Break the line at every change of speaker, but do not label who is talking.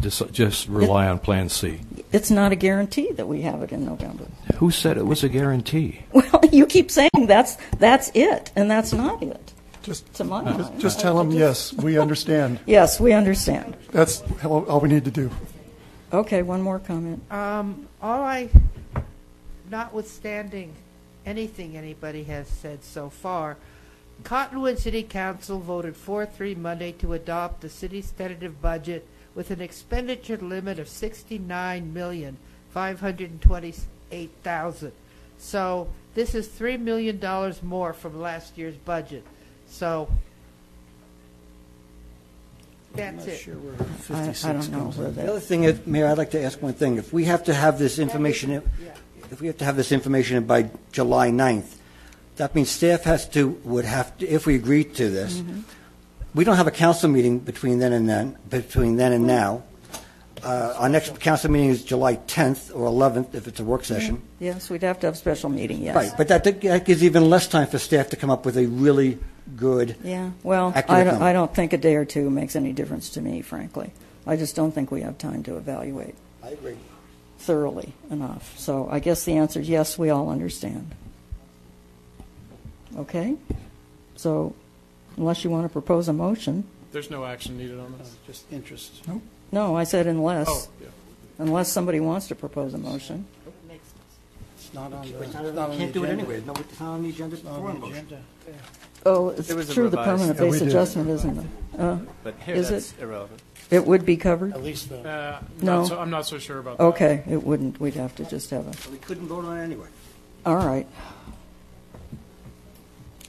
just- just rely on Plan C?
It's not a guarantee that we have it in November.
Who said it was a guarantee?
Well, you keep saying that's, that's it, and that's not it,
Just,
to my
uh,
mind.
just tell them, yes, we understand.
Yes, we understand.
That's all all we need to do.
Okay, one more comment.
Um, all I, notwithstanding anything anybody has said so far, Cottonwood City Council voted 4 3 Monday to adopt the city's tentative budget with an expenditure limit of $69,528,000. So this is $3 million more from last year's budget. So that's it.
I I don't know where
The
that,
other thing, is- Mayor, I'd like to ask one thing. If we have to have this information, in- if we have to have this information in by July 9th, that means staff has to, would have, to if we agree to this, we don't have a council meeting between then and then, between then and now. Uh, Our next council meeting is July 10th or 11th, if it's a work session.
yes, we'd have to have a special meeting, yes.
Right, but that that gives even less time for staff to come up with a really good.
Yeah, well, I
accurate
don't,
number.
I don't think a day or two makes any difference to me, frankly. I just don't think we have time to evaluate
I agree.
thoroughly enough. So I guess the answer is yes, we all understand. Okay? So unless you want to propose a motion,
There's no action needed on this, just interest.
no, I said unless,
Oh, yeah.
unless somebody wants to propose a motion.
It's not on the Can't do it anyway. No, it's not on the agenda before a motion.
Oh, it's
was a
true, the
revised-
permanent
Yeah, we
base
did.
adjustment, isn't it? Uh,
But here,
Is
that's
it-
irrelevant.
It would be covered?
At least the,
Uh,
No.
not so- I'm not so sure about that.
Okay, it wouldn't, we'd have to just have a,
We couldn't vote on it anyway.
all right.